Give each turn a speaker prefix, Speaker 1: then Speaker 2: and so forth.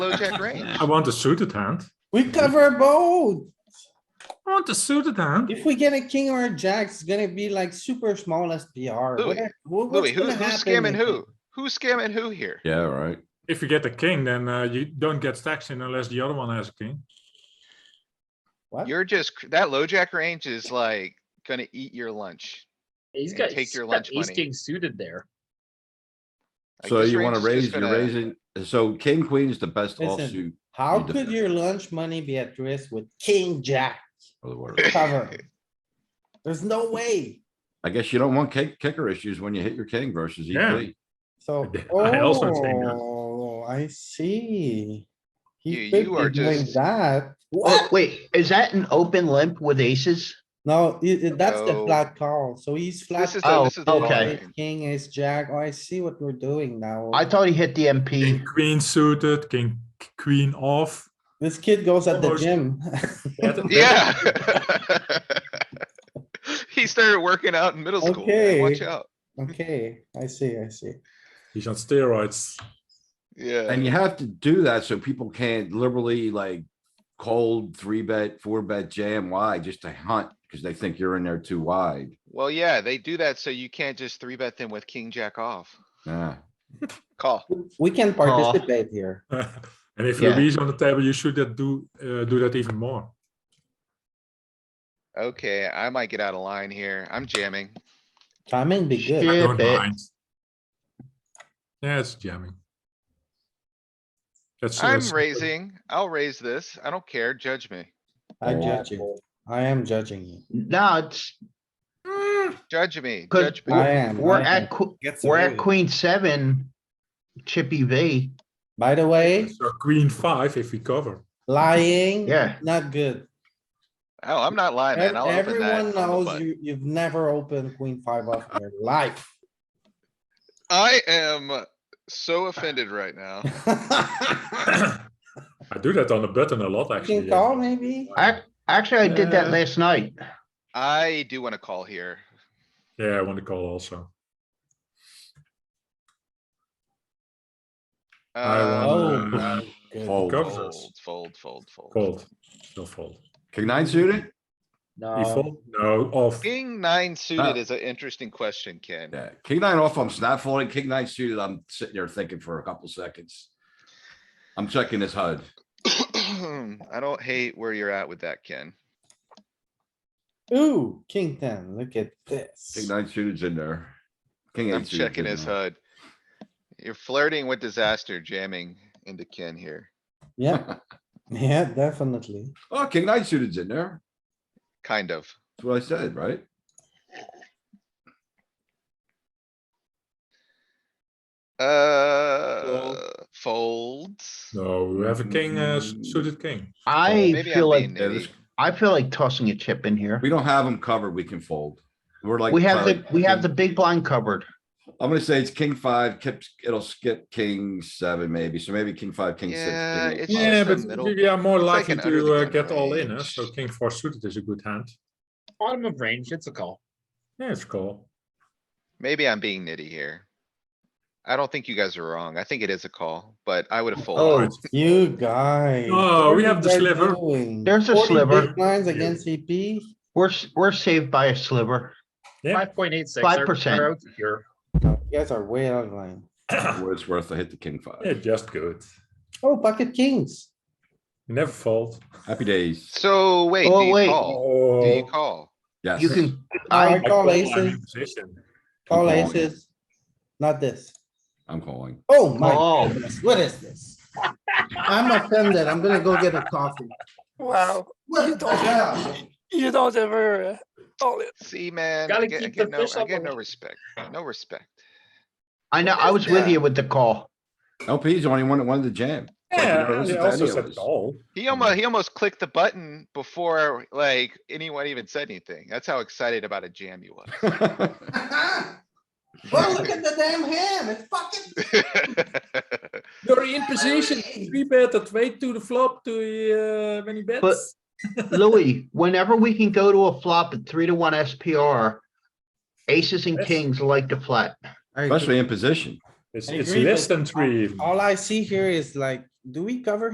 Speaker 1: low jack range.
Speaker 2: I want a suited hand.
Speaker 3: We cover both.
Speaker 2: I want a suited hand.
Speaker 3: If we get a king or a jack, it's gonna be like super small SPR.
Speaker 1: Louis,
Speaker 3: What- what-
Speaker 1: Louis,
Speaker 3: what's
Speaker 1: who,
Speaker 3: gonna
Speaker 1: who's
Speaker 3: happen
Speaker 1: scamming
Speaker 3: if-
Speaker 1: who? Who's scamming who here?
Speaker 4: Yeah, right.
Speaker 2: If you get a king, then uh, you don't get stacks in unless the other one has a king.
Speaker 3: What?
Speaker 1: You're just, cr- that low jack range is like gonna eat your lunch.
Speaker 5: He's
Speaker 1: and
Speaker 5: got,
Speaker 1: take
Speaker 5: he's
Speaker 1: your
Speaker 5: got
Speaker 1: lunch
Speaker 5: ace
Speaker 1: money.
Speaker 5: king suited there.
Speaker 1: Like,
Speaker 4: So
Speaker 1: this
Speaker 4: you wanna
Speaker 1: range is
Speaker 4: raise,
Speaker 1: just
Speaker 4: you're
Speaker 1: gonna-
Speaker 4: raising, so king, queen is the best
Speaker 3: Listen.
Speaker 4: offsuit
Speaker 3: How
Speaker 4: You
Speaker 3: could
Speaker 4: defend.
Speaker 3: your lunch money be at risk with king, jack,
Speaker 4: of the world.
Speaker 3: cover? There's no way.
Speaker 4: I guess you don't want kick, kicker issues when you hit your king versus E
Speaker 2: Yeah.
Speaker 4: EP.
Speaker 3: So,
Speaker 2: I also think that.
Speaker 3: oh, I see.
Speaker 1: You-
Speaker 3: He
Speaker 1: you
Speaker 3: could
Speaker 1: are
Speaker 3: be doing
Speaker 1: just-
Speaker 3: that.
Speaker 6: Oh, wait, is that an open limp with aces?
Speaker 3: No, i- i- that's the
Speaker 1: No.
Speaker 3: flat call. So he's flat.
Speaker 1: This is, the-
Speaker 6: Oh,
Speaker 1: this is the long
Speaker 6: okay.
Speaker 1: range.
Speaker 3: King is jack. Oh, I see what we're doing now.
Speaker 6: I thought he hit the
Speaker 2: King,
Speaker 6: MP.
Speaker 2: queen suited, king, queen off.
Speaker 3: This kid goes at the
Speaker 2: Almost.
Speaker 3: gym.
Speaker 2: That- that-
Speaker 1: Yeah. He started working out in middle school. man. Watch
Speaker 3: Okay.
Speaker 1: out.
Speaker 3: Okay, I see, I see.
Speaker 2: He's on steroids.
Speaker 1: Yeah.
Speaker 4: And you have to do that so people can't liberally like cold three bet, four bet jam wide just to hunt because they think you're in there too wide.
Speaker 1: Well, yeah, they do that so you can't just three bet them with king jack off.
Speaker 4: Yeah.
Speaker 1: Call.
Speaker 3: We can participate here.
Speaker 2: and if
Speaker 6: Yeah.
Speaker 2: Louis on the table, you should that do uh, do that even more.
Speaker 1: Okay, I might get out of line here. I'm jamming.
Speaker 3: Timing be
Speaker 6: Shit.
Speaker 3: good.
Speaker 6: Yeah,
Speaker 2: don't
Speaker 6: bet.
Speaker 2: mind. Yeah, it's jamming. That's
Speaker 1: I'm
Speaker 2: that's-
Speaker 1: raising. I'll raise this. I don't care. Judge me.
Speaker 3: I judge you. I am judging you.
Speaker 6: No, it's,
Speaker 1: Judge me.
Speaker 6: cause
Speaker 1: Judge me.
Speaker 3: I am.
Speaker 6: we're
Speaker 3: I am.
Speaker 6: at, que- we're at queen seven, chippy V,
Speaker 3: By the way,
Speaker 2: So queen five if we cover.
Speaker 3: lying,
Speaker 6: yeah.
Speaker 3: not good.
Speaker 1: Oh, I'm not lying, man.
Speaker 3: Ev-
Speaker 1: I'll open
Speaker 3: Everyone
Speaker 1: that. on the
Speaker 3: knows
Speaker 1: button.
Speaker 3: you, you've never opened queen five off in your life.
Speaker 1: I am so offended right now.
Speaker 2: I do that on the button a lot
Speaker 3: You
Speaker 2: actually.
Speaker 3: can call maybe?
Speaker 6: I, actually, I did that
Speaker 2: Uh.
Speaker 6: last night.
Speaker 1: I do wanna call here.
Speaker 2: Yeah, I want to call also. I
Speaker 1: Um,
Speaker 2: want
Speaker 3: Oh.
Speaker 2: uh,
Speaker 3: Good.
Speaker 4: Fold.
Speaker 2: Go.
Speaker 1: Fold, fold, fold, fold.
Speaker 2: fold. No fold.
Speaker 4: King nine suited?
Speaker 2: He
Speaker 3: No,
Speaker 2: fold? No, off.
Speaker 1: King nine
Speaker 4: Ah.
Speaker 1: suited is an interesting question, Ken.
Speaker 4: Yeah. King nine off, I'm snap folding. King nine suited, I'm sitting there thinking for a couple seconds. I'm checking this HUD.
Speaker 1: I don't hate where you're at with that, Ken.
Speaker 3: ooh, king ten, look at
Speaker 4: King
Speaker 3: this.
Speaker 4: nine suited's in there. King eight.
Speaker 1: I'm
Speaker 4: suited's
Speaker 1: checking
Speaker 4: in
Speaker 1: his
Speaker 4: there.
Speaker 1: HUD. You're flirting with disaster jamming into Ken here.
Speaker 3: Yeah, yeah, definitely.
Speaker 4: Oh, king nine suited's in there.
Speaker 1: Kind of.
Speaker 4: That's what I said, right?
Speaker 1: Uh, folds.
Speaker 2: No, we have a king, uh, s-
Speaker 1: Mm.
Speaker 2: suited king.
Speaker 6: I
Speaker 1: Maybe I'm
Speaker 6: feel
Speaker 1: being
Speaker 6: like,
Speaker 4: Yeah, this-
Speaker 1: nitty.
Speaker 6: I feel like tossing a chip in here.
Speaker 4: We don't have them covered. We can fold. We're like.
Speaker 6: We have the,
Speaker 4: probably
Speaker 6: we have the
Speaker 4: king-
Speaker 6: big blind covered.
Speaker 4: I'm gonna say it's king five, kips, it'll skip king seven maybe, so maybe king five, king six.
Speaker 1: Yeah,
Speaker 4: king eight.
Speaker 1: it's
Speaker 2: Yeah,
Speaker 1: just a
Speaker 2: but
Speaker 1: middle-
Speaker 2: we are more
Speaker 1: it's like
Speaker 2: likely
Speaker 1: an under
Speaker 2: to
Speaker 1: the
Speaker 2: uh,
Speaker 1: gun
Speaker 2: get all in, uh,
Speaker 1: range.
Speaker 2: so king four suited is a good hand.
Speaker 5: Bottom of range, it's a call.
Speaker 2: Yeah, it's cool.
Speaker 1: Maybe I'm being nitty here. I don't think you guys are wrong. I think it is a call, but I would have
Speaker 3: Oh,
Speaker 1: folded.
Speaker 3: you guys.
Speaker 2: Oh,
Speaker 3: what
Speaker 2: we
Speaker 3: are
Speaker 2: have
Speaker 3: you
Speaker 2: the
Speaker 3: guys
Speaker 2: sliver.
Speaker 3: doing?
Speaker 6: There's a
Speaker 3: 40
Speaker 6: sliver.
Speaker 3: big Blinds against CP.
Speaker 6: We're, s- we're saved by a sliver.
Speaker 2: Yeah.
Speaker 5: Five point eight six.
Speaker 6: 5%.
Speaker 5: Here,
Speaker 3: No, You guys are way out of line.
Speaker 4: Where it's worth, I hit the king
Speaker 2: Yeah,
Speaker 4: five.
Speaker 2: just good.
Speaker 3: Oh, pocket kings.
Speaker 2: Never fold.
Speaker 4: Happy days.
Speaker 1: So wait,
Speaker 6: Oh,
Speaker 1: do you
Speaker 6: wait.
Speaker 1: call? Do you
Speaker 2: Oh.
Speaker 1: call?
Speaker 4: Yes.
Speaker 6: You can,
Speaker 3: I
Speaker 6: I,
Speaker 3: call
Speaker 2: I'm in
Speaker 3: aces,
Speaker 2: position.
Speaker 3: call
Speaker 4: calling.
Speaker 3: aces. Not this.
Speaker 4: I'm calling.
Speaker 3: Oh my
Speaker 6: Oh.
Speaker 3: goodness, what is this? I'm offended. I'm gonna go get a coffee.
Speaker 7: Wow,
Speaker 3: What the hell?
Speaker 7: you don't ever uh, call it.
Speaker 1: See, man, I
Speaker 5: Gotta
Speaker 1: get, I
Speaker 5: keep the
Speaker 1: get no,
Speaker 5: fish
Speaker 1: I
Speaker 5: up
Speaker 1: get
Speaker 5: on
Speaker 1: no
Speaker 5: it.
Speaker 1: respect, no respect.
Speaker 6: I know, I was with you with the call.
Speaker 4: LP's the only one that wanted to jam. Like, you
Speaker 2: Yeah,
Speaker 4: never
Speaker 2: and
Speaker 4: listen
Speaker 2: they
Speaker 4: to
Speaker 2: also
Speaker 4: any of
Speaker 2: said
Speaker 4: us.
Speaker 2: call.
Speaker 1: He almost, he almost clicked the button before like anyone even said anything. That's how excited about a jam you was.
Speaker 3: Well, look at the damn hand. It's fucking.
Speaker 2: You're in
Speaker 3: position.
Speaker 2: Three bet that way to the flop to uh, many bets.
Speaker 6: But- Louis, whenever we can go to a flop at three to one SPR, aces and
Speaker 2: Yes.
Speaker 6: kings like to flat.
Speaker 3: I agree.
Speaker 4: Especially in position.
Speaker 2: It's,
Speaker 3: I
Speaker 2: it's
Speaker 3: agree,
Speaker 2: less
Speaker 3: but
Speaker 2: than three. even.
Speaker 3: All I see here is like do we cover